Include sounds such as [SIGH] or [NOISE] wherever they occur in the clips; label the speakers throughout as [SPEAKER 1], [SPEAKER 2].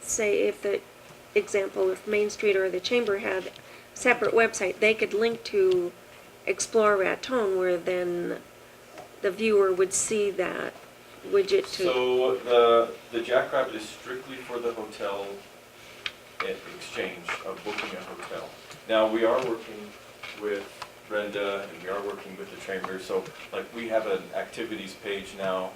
[SPEAKER 1] say if the, example, if Main Street or the Chamber had separate website, they could link to Explore Raton where then the viewer would see that widget too.
[SPEAKER 2] So the, the Jackrabbit is strictly for the hotel e- exchange of booking a hotel. Now, we are working with Brenda and we are working with the chamber, so like we have an activities page now,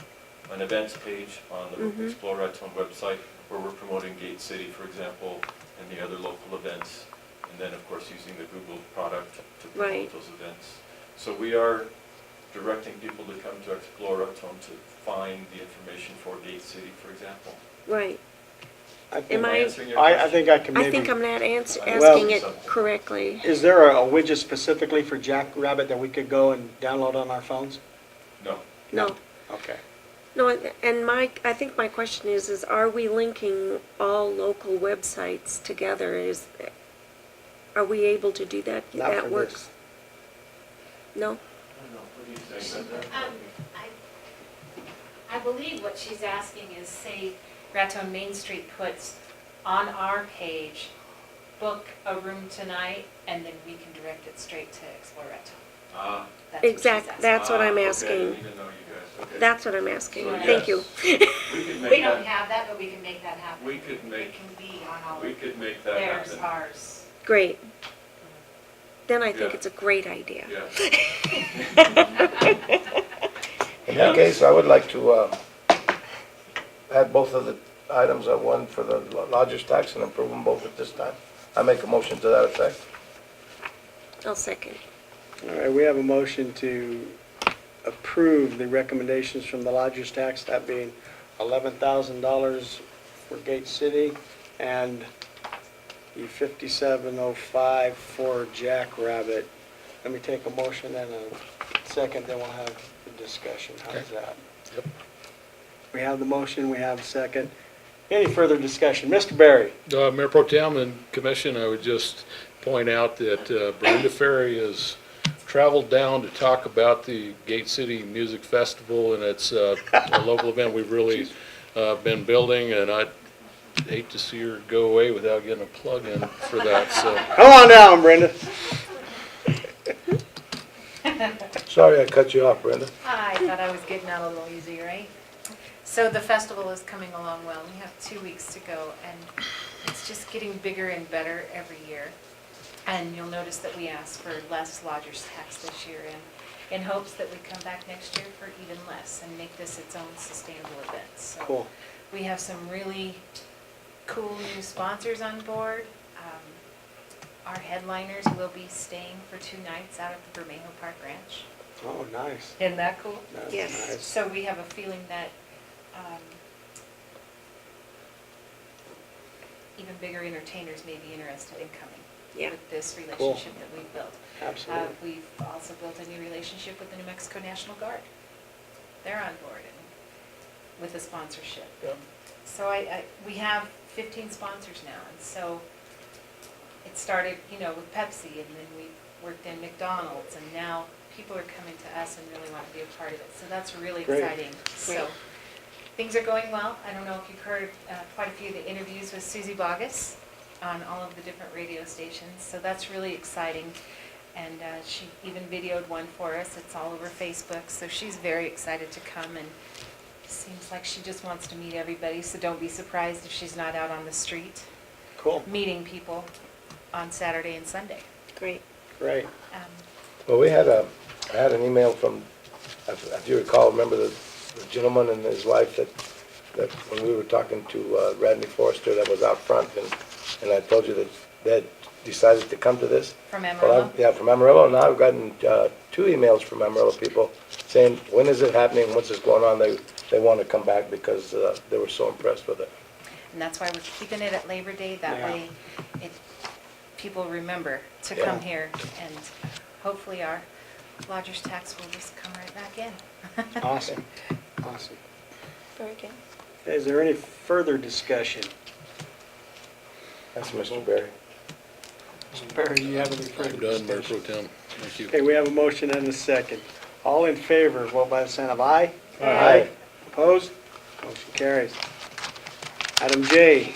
[SPEAKER 2] an events page on the
[SPEAKER 1] Mhm.
[SPEAKER 2] Exploraton website where we're promoting Gate City, for example, and the other local events. And then, of course, using the Google product to
[SPEAKER 1] Right.
[SPEAKER 2] promote those events. So we are directing people to come to Exploraton to find the information for Gate City, for example.
[SPEAKER 1] Right.
[SPEAKER 3] I
[SPEAKER 1] Am
[SPEAKER 3] think-
[SPEAKER 1] I-
[SPEAKER 2] answering your
[SPEAKER 3] I, I
[SPEAKER 2] question?
[SPEAKER 3] think I can
[SPEAKER 1] I think I'm
[SPEAKER 3] maybe,
[SPEAKER 1] not ans-
[SPEAKER 2] Well-
[SPEAKER 1] asking it correctly.
[SPEAKER 3] is there a a widget specifically for Jackrabbit that we could go and download on our phones?
[SPEAKER 2] No.
[SPEAKER 1] No,
[SPEAKER 3] Okay.
[SPEAKER 1] no, and- and my, I think my question is, is are we linking all local websites together? Is, are we able to do that?
[SPEAKER 3] Not for
[SPEAKER 1] That
[SPEAKER 3] this.
[SPEAKER 1] works? No?
[SPEAKER 4] Um, I I believe what she's asking is, say, Raton Main Street puts on our page, book a room tonight, and then we can direct it straight to Explore Raton.
[SPEAKER 2] Ah,
[SPEAKER 4] That's what she's
[SPEAKER 1] Exact-
[SPEAKER 4] asking.
[SPEAKER 1] That's what
[SPEAKER 2] ah,
[SPEAKER 1] I'm
[SPEAKER 2] okay, I
[SPEAKER 1] asking.
[SPEAKER 2] didn't even know you guys, okay.
[SPEAKER 1] That's what I'm asking.
[SPEAKER 2] So
[SPEAKER 1] Thank you. [LAUGHS]
[SPEAKER 2] yes, We could
[SPEAKER 4] We
[SPEAKER 2] make
[SPEAKER 4] don't
[SPEAKER 2] that,
[SPEAKER 4] have that, but we can make that happen.
[SPEAKER 2] We could make-
[SPEAKER 4] It can be on all
[SPEAKER 2] we
[SPEAKER 4] of
[SPEAKER 2] could make that
[SPEAKER 4] theirs,
[SPEAKER 2] happen.
[SPEAKER 4] ours.
[SPEAKER 1] Great. Then I think
[SPEAKER 2] Yeah.
[SPEAKER 1] it's a great idea.
[SPEAKER 2] Yes.
[SPEAKER 5] In that
[SPEAKER 2] Yeah.
[SPEAKER 5] case, I would like to uh, add both of the items at one for the lo- lodger's tax and approve them both at this time. I make a motion to that effect.
[SPEAKER 1] I'll second.
[SPEAKER 3] All right, we have a motion to approve the recommendations from the lodger's tax, that being eleven thousand dollars for Gate City and the fifty-seven oh five for Jackrabbit. Let me take a motion and a second, then we'll have the discussion. How's that? We have the motion, we have a second. Any further discussion? Mr. Barry?
[SPEAKER 6] Uh, Mayor Pro Tem and Commission, I would just point out that uh, Brenda Ferry has traveled down to talk about the Gate City Music Festival, and it's uh, a local event we've really uh, been building, and I'd hate to see her go away without getting a plug in for that, so.
[SPEAKER 3] Come on down, Brenda.
[SPEAKER 5] Sorry I cut you off, Brenda.
[SPEAKER 4] I thought I was getting out a little easy, right? So the festival is coming along well, we have two weeks to go, and it's just getting bigger and better every year. And you'll notice that we asked for less lodger's tax this year, in, in hopes that we come back next year for even less and make this its own sustainable event, so.
[SPEAKER 3] Cool.
[SPEAKER 4] We have some really cool new sponsors on board. Um, Our headliners will be staying for two nights out at the Bermejo Park Ranch.
[SPEAKER 3] Oh, nice.
[SPEAKER 4] Isn't that cool?
[SPEAKER 3] That's
[SPEAKER 1] Yes.
[SPEAKER 3] nice.
[SPEAKER 4] So we have a feeling that um, even bigger entertainers may be interested in coming
[SPEAKER 1] Yeah.
[SPEAKER 4] with this relationship that we've built. Uh,
[SPEAKER 3] Absolutely.
[SPEAKER 4] We've also built a new relationship with the New Mexico National Guard. They're on board and with a sponsorship. So I, I, we have fifteen sponsors now, and so it started, you know, with Pepsi, and then we worked in McDonald's, and now people are coming to us and really want to be a part of it, so that's really
[SPEAKER 3] Great.
[SPEAKER 4] exciting. So, things are going well, I don't know if you've heard uh, quite a few of the interviews with Susie Bogus on all of the different radio stations, so that's really exciting. And uh, she even videoed one for us, it's all over Facebook, so she's very excited to come and Seems like she just wants to meet everybody, so don't be surprised if she's not out on the street
[SPEAKER 3] Cool.
[SPEAKER 4] meeting people on Saturday and Sunday.
[SPEAKER 1] Great.
[SPEAKER 3] Great.
[SPEAKER 4] Um,
[SPEAKER 5] Well, we had a, I had an email from, if if you recall, remember the the gentleman and his wife that, that when we were talking to uh, Radney Forrester that was out front and, and I told you that they had decided to come to this?
[SPEAKER 4] From
[SPEAKER 5] Well,
[SPEAKER 4] Amarillo?
[SPEAKER 5] I've- Yeah, from Amarillo, and I've gotten uh, two emails from Amarillo people saying, when is it happening, what's this going on? They, they want to come back because uh, they were so impressed with it.
[SPEAKER 4] And that's why we're keeping it at Labor Day, that
[SPEAKER 3] Yeah.
[SPEAKER 4] way it, people remember to
[SPEAKER 5] Yeah.
[SPEAKER 4] come here. And hopefully our lodger's tax will just come right back in.
[SPEAKER 3] Awesome. Awesome.
[SPEAKER 1] Very good.
[SPEAKER 3] Is there any further discussion?
[SPEAKER 5] That's Mr. Barry.
[SPEAKER 3] Mr. Perry, do you have any further
[SPEAKER 6] I'm done, Mayor
[SPEAKER 3] discussion?
[SPEAKER 6] Pro Tem. Thank you.
[SPEAKER 3] Okay, we have a motion and a second. All in favor, vote by the sign of aye.
[SPEAKER 5] Aye.
[SPEAKER 3] Opposed? Motion carries. Item J,